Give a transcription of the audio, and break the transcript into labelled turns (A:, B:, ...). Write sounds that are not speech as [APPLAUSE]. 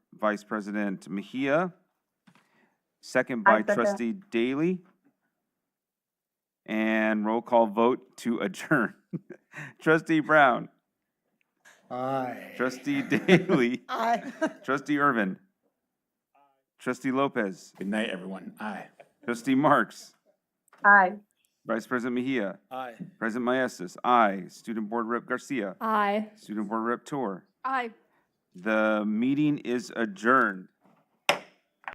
A: Vice President Mejia, second by
B: I second.
A: trustee Daly. And roll call vote to [LAUGHS] adjourn. Trustee Brown,
C: Aye.
A: trustee Daly,
C: Aye.
A: trustee Irvin, trustee Lopez,
C: Good night, everyone. Aye.
A: trustee Marks,
B: Aye.
A: Vice President Mejia,
C: Aye.
A: President Maestas, aye. Student Board Rep Garcia,
D: Aye.
A: Student Board Rep Tour.
D: Aye.
A: The meeting is adjourned.